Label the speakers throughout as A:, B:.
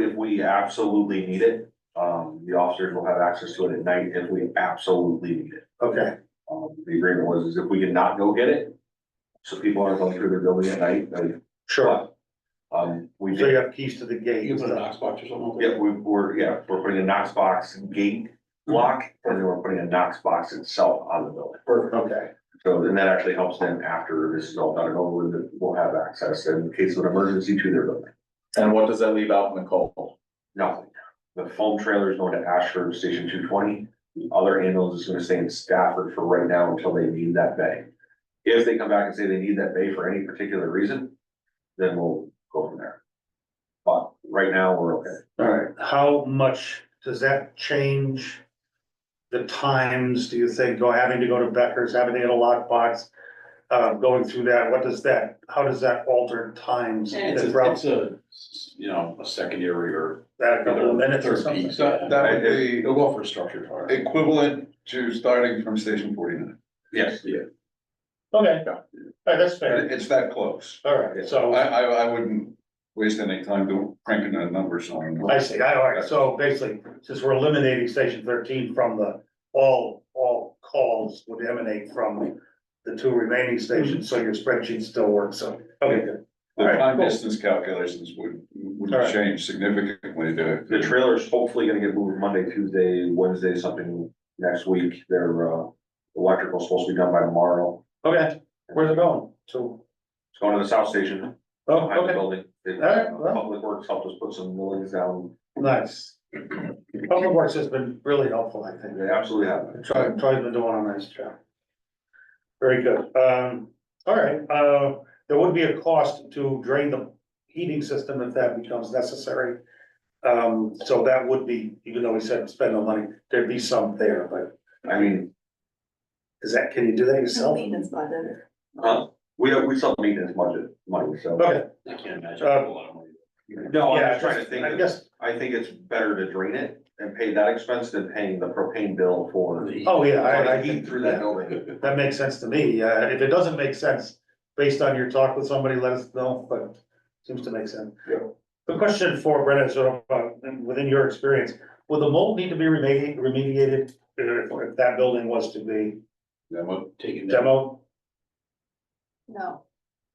A: we absolutely need it. Um, the officers will have access to it at night if we absolutely need it.
B: Okay,
A: Um, the agreement was is if we did not go get it, so people aren't going through their building at night, like,
B: sure.
A: um, we
B: So you
A: did.
B: have keys to the gate.
C: You can put a Knox box or something.
A: Yeah, we, we're, yeah, we're putting a Knox box gate lock, and then we're putting a Knox box itself on the building.
C: Perfect.
B: Okay,
A: So, and that actually helps them after this is all done and over, with, that we'll have access in case of an emergency to their building.
D: And what does that leave out in the cold?
A: Nothing. The foam trailer is going to Ashford Station two twenty. The other ambulance is gonna stay in Stafford for right now until they need that bay. If they come back and say they need that bay for any particular reason, then we'll go from there. But right now, we're okay.
B: all right. How much does that change? The times, do you think, go having to go to Becker's, having to get a lockbox? Uh, going through that, what does that, how does that alter times?
C: It's
B: That's
C: a,
B: rough.
C: it's a, you know, a secondary or.
B: That a couple of minutes or
C: third
B: something?
C: piece.
E: That, that would be
C: It'll go for structure fire.
E: equivalent to starting from station forty-nine.
A: Yes.
B: Okay, all right, that's fair.
E: It- It's that close.
B: All right,
E: I,
B: so
E: I, I wouldn't waste any time to cranking the numbers on.
B: I see, I, all right, so basically, since we're eliminating station thirteen from the, all, all calls would emanate from the two remaining stations, so your spreadsheet still works, so, okay, good.
E: The
B: All right,
E: time
B: cool.
E: distance calculations would, would
B: All right.
E: change significantly to.
A: The trailer's hopefully gonna get moved Monday, Tuesday, Wednesday, something next week. Their uh electrical's supposed to be done by tomorrow.
B: Okay, where's it going? To,
A: It's going to the south station
B: oh,
A: behind the
B: okay,
A: building. It-
B: Alright, well.
A: Public Works helped us put some millings down.
B: nice. Public Works has been really helpful, I think.
A: They absolutely have.
B: Troy, Troy's been doing a nice job. Very good, um, all right, uh, there would be a cost to drain the heating system if that becomes necessary. Um, so that would be, even though we said spend the money, there'd be some there, but
A: I mean,
B: is that, can you do that yourself?
F: Maintenance budget.
A: huh? We we sell maintenance budget money, so.
B: Okay,
C: I can't imagine.
B: Uh,
C: a lot of money.
A: No, Oh, I'm
B: yeah,
A: just trying to think.
B: I
A: of-
B: guess,
A: I think it's better to drain it and pay that expense than paying the propane bill for.
B: oh, yeah, I,
A: I
B: I
A: heat
B: think
A: through that building.
B: that makes sense to me, uh, if it doesn't make sense, based on your talk with somebody, let us know, but seems to make sense.
A: Yeah.
B: The question for Brenna, is sort of, uh, within your experience, would the mold need to be remedi- remediated uh, if that building was to be
E: Demo.
C: Taking that.
B: demo?
F: No.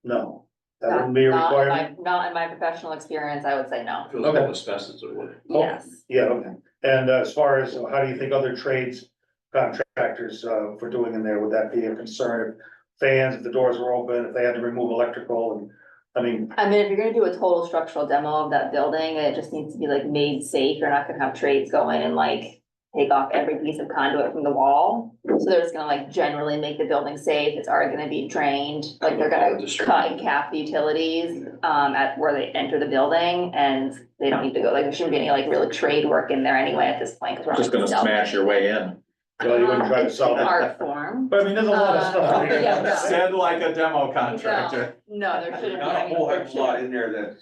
B: No, that
F: not-
B: wouldn't be a
F: not in my-
B: requirement,
F: Not in my professional experience, I would say no.
C: If it was all asbestos, it would.
B: Oh.
F: Yes.
B: yeah, okay, and uh, as far as, how do you think other trades contractors uh, for doing in there, would that be a concern? Fans, if the doors were open, if they had to remove electrical and, I mean,
F: I mean, if you're gonna do a total structural demo of that building, it just needs to be like made safe. You're not gonna have trades go in and like take off every piece of conduit from the wall. So they're just gonna like generally make the building safe. It's already gonna be drained, like they're gonna cut and cap the utilities um at where they enter the building and they don't need to go, like, there shouldn't be any like really trade work in there anyway at this point. 'cause we're not
D: Just gonna
F: sell
D: smash your way in.
B: well, you wouldn't try to
F: It's
B: solve
F: an Art
B: it.
F: form.
B: But I mean, there's a lot of
F: Uh,
B: stuff.
F: yeah, no.
D: Said like a demo contractor.
F: No, no, there shouldn't be,
A: Not
F: I
A: a whole
F: mean,
A: heck
F: there
A: of a lot
F: shouldn't-
A: in there that,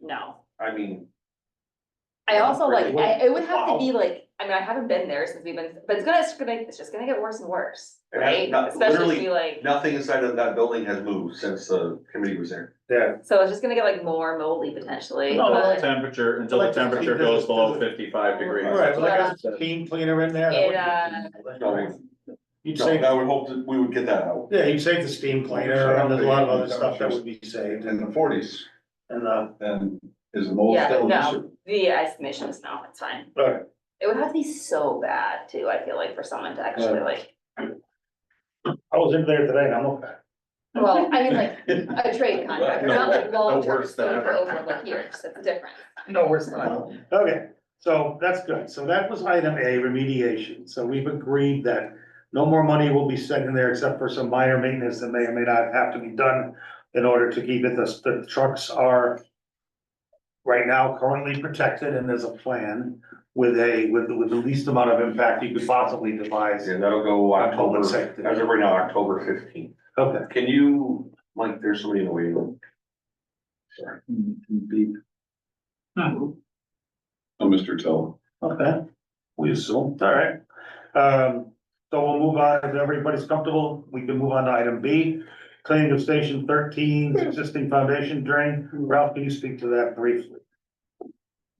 F: no.
A: I mean,
F: I also like,
A: Really?
F: I, it would have
A: Wow.
F: to be like, I mean, I haven't been there since we've been, but it's gonna, it's gonna, it's just gonna get worse and worse,
A: It has
F: right?
A: not-
F: Especially
A: literally
F: if you like,
A: nothing inside of that building has moved since the committee was there.
B: Yeah,
F: so it's just gonna get like more moldy potentially,
B: No,
F: but
D: Temperature, until the temperature goes below fifty-five degrees.
B: All right, well, I got a steam cleaner in there. that wouldn't-
A: No,
F: uh,
A: I-
B: You'd
A: No,
B: save,
A: I would hope that we would get that out.
B: yeah, you'd save the steam cleaner, and there's a lot of other stuff that would be saved,
E: In the
B: and,
E: forties,
B: and, uh,
E: then is the mold
F: Yeah,
E: still an
F: no.
E: issue?
F: the estimation is no, it's fine.
B: all right,
F: It would have to be so bad too, I feel like, for someone to actually like,
B: I was in there today, and I'm okay.
F: well, I mean, like, a trade contractor, not like
D: No, no
F: long-term
D: worse than
F: exposure
D: ever.
F: over like years, that's different.
B: No, worse than I. Okay, so that's good, so that was item A, remediation, so we've agreed that no more money will be sent in there except for some minor maintenance that may or may not have to be done in order to keep it, the, the trucks are right now currently protected, and there's a plan with a, with, with the least amount of impact you could possibly devise.
A: And that'll go October,
B: October
A: as
B: second.
A: of right now, October fifteenth.
B: Okay,
A: Can you, Mike, there's somebody in the waiting room.
E: Oh, Mr. Tell.
B: okay.
A: We assume.
B: All right, um, so we'll move on, if everybody's comfortable, we can move on to item B. Cleaning of station thirteen, existing foundation drain, Ralph, can you speak to that briefly?